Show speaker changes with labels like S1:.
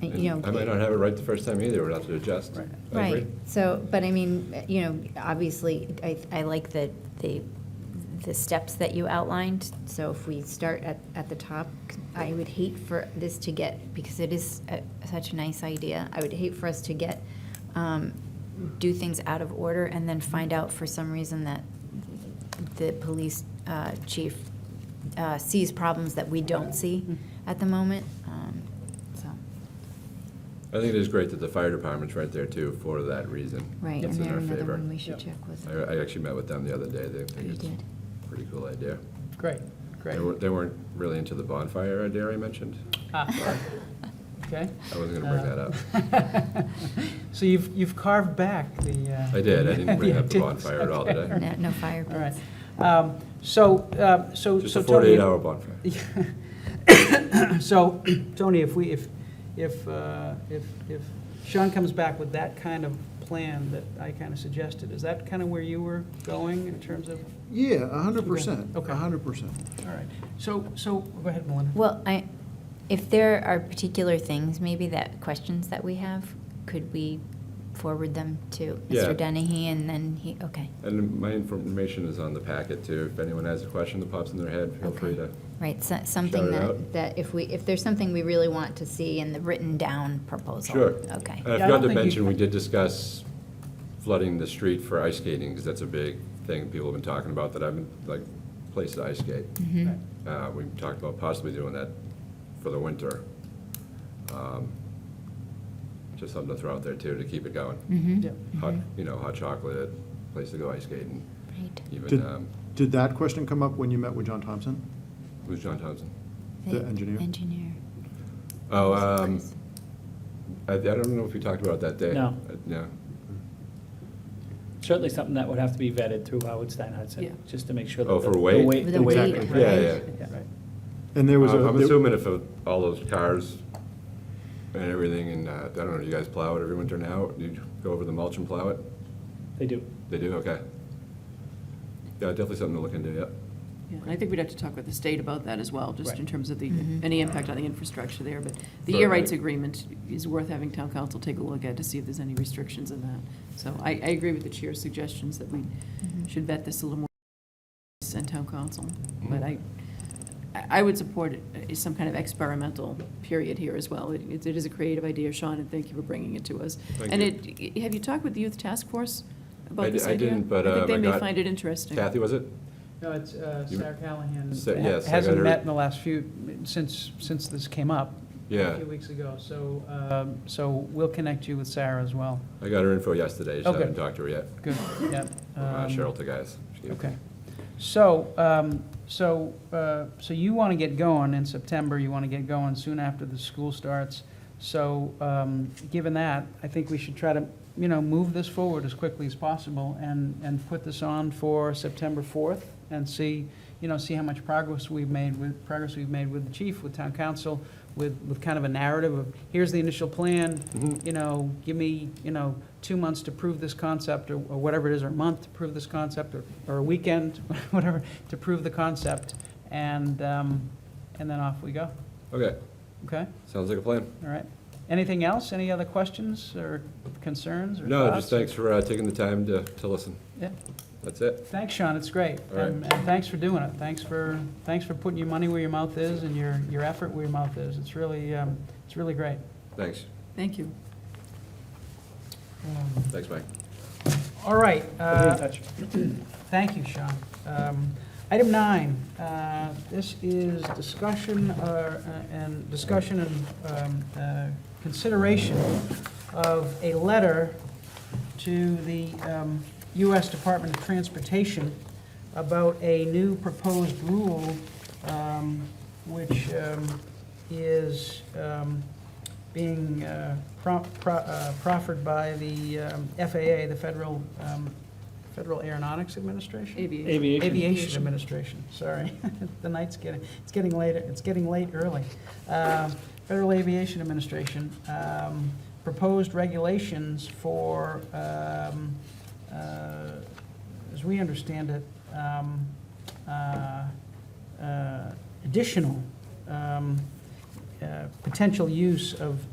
S1: you know.
S2: And I might not have it right the first time either, we'll have to adjust.
S3: Right.
S2: I agree.
S1: Right, so, but I mean, you know, obviously, I, I like the, the, the steps that you outlined. So if we start at, at the top, I would hate for this to get, because it is a- such a nice idea, I would hate for us to get, um, do things out of order and then find out for some reason that the police uh, chief uh, sees problems that we don't see at the moment, um, so,
S2: I think it is great that the fire department's right there too, for that reason.
S1: right.
S2: It's
S1: And
S2: in
S1: then
S2: our
S1: another
S2: favor.
S1: one we should check was.
S2: I, I actually met with them the other day, they
S1: You
S2: think it's
S1: did.
S2: a pretty cool idea.
S3: Great,
S2: They
S3: great.
S2: weren't, they weren't really into the bonfire idea I mentioned,
S3: Ah, Okay.
S2: I wasn't gonna bring
S3: Uh,
S2: that up.
S3: that up. So you've, you've carved back the. uh,
S2: I did. I didn't bring up the
S3: antiques.
S2: bonfire at all, did I?
S3: Okay.
S1: No, no fire
S3: All right.
S1: pits.
S3: Um, So, uh, so.
S2: Just
S3: so
S2: a
S3: Tony,
S2: forty-eight hour bonfire.
S3: So, Tony, if we, if, if, uh, if if Sean comes back with that kind of plan that I kind of suggested, is that kind of where you were going in terms of?
S4: Yeah, a hundred percent,
S3: Okay.
S4: a hundred percent.
S3: All right. So, so, go ahead, Melinda.
S1: Well, I, if there are particular things, maybe that, questions that we have, could we forward them to
S2: Yeah.
S1: Mr. Dennehy and then he, okay,
S2: And my information is on the packet too, if anyone has a question that pops in their head, feel free
S1: okay.
S2: to.
S1: Right, so- something
S2: Shout it out.
S1: that, that if we, if there's something we really want to see in the written down proposal.
S2: Sure. Uh,
S1: Okay,
S2: And I
S3: Yeah, I
S2: forgot to
S3: don't think you-
S2: mention, we did discuss flooding the street for ice skating, because that's a big thing people have been talking about, that I've been, like, place to ice skate.
S1: Mm-hmm.
S3: Right.
S2: Uh, we talked about possibly doing that for the winter. Um, Just something to throw out there too, to keep it going.
S1: mm-hmm,
S3: Yep.
S2: Hot, you know, hot chocolate, place to go ice skating,
S1: right.
S2: even,
S4: Did-
S2: um,
S4: Did that question come up when you met with John Thompson?
S2: who's John Thompson?
S4: The engineer?
S1: Engineer.
S2: Oh, um, I, I don't know if we talked about it that day.
S5: No.
S2: Uh, No.
S5: Certainly something that would have to be vetted through Howard Stein
S3: Yeah.
S5: Hudson, just to make sure that.
S2: Oh,
S5: the-
S2: for
S5: the
S2: weight?
S1: With
S5: The
S1: the
S5: weight.
S1: weight,
S2: Yeah, yeah.
S5: Yeah, right.
S4: And there was a.
S2: I'm I'm
S4: there-
S2: assuming if uh, all those cars and everything, and uh, I don't know, do you guys plow it every winter now? Do you go over the mulch and plow it?
S5: They do.
S2: They do, okay. Yeah, definitely something to look into, yeah.
S6: Yeah, and I think we'd have to talk with the state about that as well, just in
S5: Right.
S6: terms of the,
S1: Mhm.
S6: any impact on the infrastructure there. But the
S2: Right,
S6: air rights
S2: right.
S6: agreement is worth having town council take a look at to see if there's any restrictions in that. So I, I agree with the chair's suggestions that we should vet this a little more and town council. But
S2: Mm-hmm.
S6: I, I I would support it, uh, some kind of experimental period here as well. It it is a creative idea, Sean, and thank you for bringing it to us.
S2: Thank
S6: And
S2: you.
S6: it, have you talked with the youth task force
S2: I
S6: about
S2: di-
S6: this
S2: I
S6: idea?
S2: didn't, but,
S6: I think
S2: um, I
S6: they may
S2: got
S6: find it interesting.
S2: Kathy, was it?
S3: No, it's uh,
S2: You-
S3: Sarah Callahan.
S2: Sa- yes, I got
S3: Hasn't
S2: her-
S3: met in the last few, since, since this came up. A
S2: Yeah,
S3: few weeks ago, so, um, so we'll connect you with Sarah as well.
S2: I got her info yesterday, just
S3: Okay.
S2: haven't talked to her yet.
S3: Good, yep.
S2: Uh,
S3: Um,
S2: Cheryl Tagayas. she gave-
S3: Okay. So, um, so, uh, so you want to get going in September, you want to get going soon after the school starts. So, um, given that, I think we should try to, you know, move this forward as quickly as possible and, and put this on for September 4th and see, you know, see how much progress we've made with, progress we've made with the chief, with town council, with, with kind of a narrative of, here's the initial plan, you know, give me, you know, two months to prove this concept, or or whatever it is, or a month to prove this concept, or, or a weekend, whatever, to prove the concept, and, um, and then off we go,
S2: Mm-hmm. Okay,
S3: okay?
S2: sounds like a plan.
S3: All right. Anything else? Any other questions or concerns or
S2: No,
S3: thoughts?
S2: just thanks for uh, taking the time to, to listen.
S3: Yeah.
S2: That's it.
S3: Thanks, Sean, it's great.
S2: All right.
S3: And and thanks for doing it. Thanks for, thanks for putting your money where your mouth is and your, your effort where your mouth is. It's really, um, it's really great.
S2: Thanks.
S6: Thank you.
S3: Um,
S2: Thanks, Mike.
S3: All right.
S5: We'll be in
S3: uh,
S5: touch.
S3: Thank you, Sean. Um, Item nine, uh, this is discussion uh, and, discussion and um, uh, consideration of a letter to the um, U.S. Department of Transportation about a new proposed rule um, which um, is um, being uh, pro- pro- uh, proffered by the um, FAA, the Federal, um, Federal Aeronautics Administration?
S6: Aviation.
S5: Aviation.
S3: Aviation Administration, sorry. The night's getting, it's getting later, it's getting late early. Um, Federal Aviation Administration, um, proposed regulations for, um, uh, as we understand it, um, uh, uh, additional um, uh, potential use of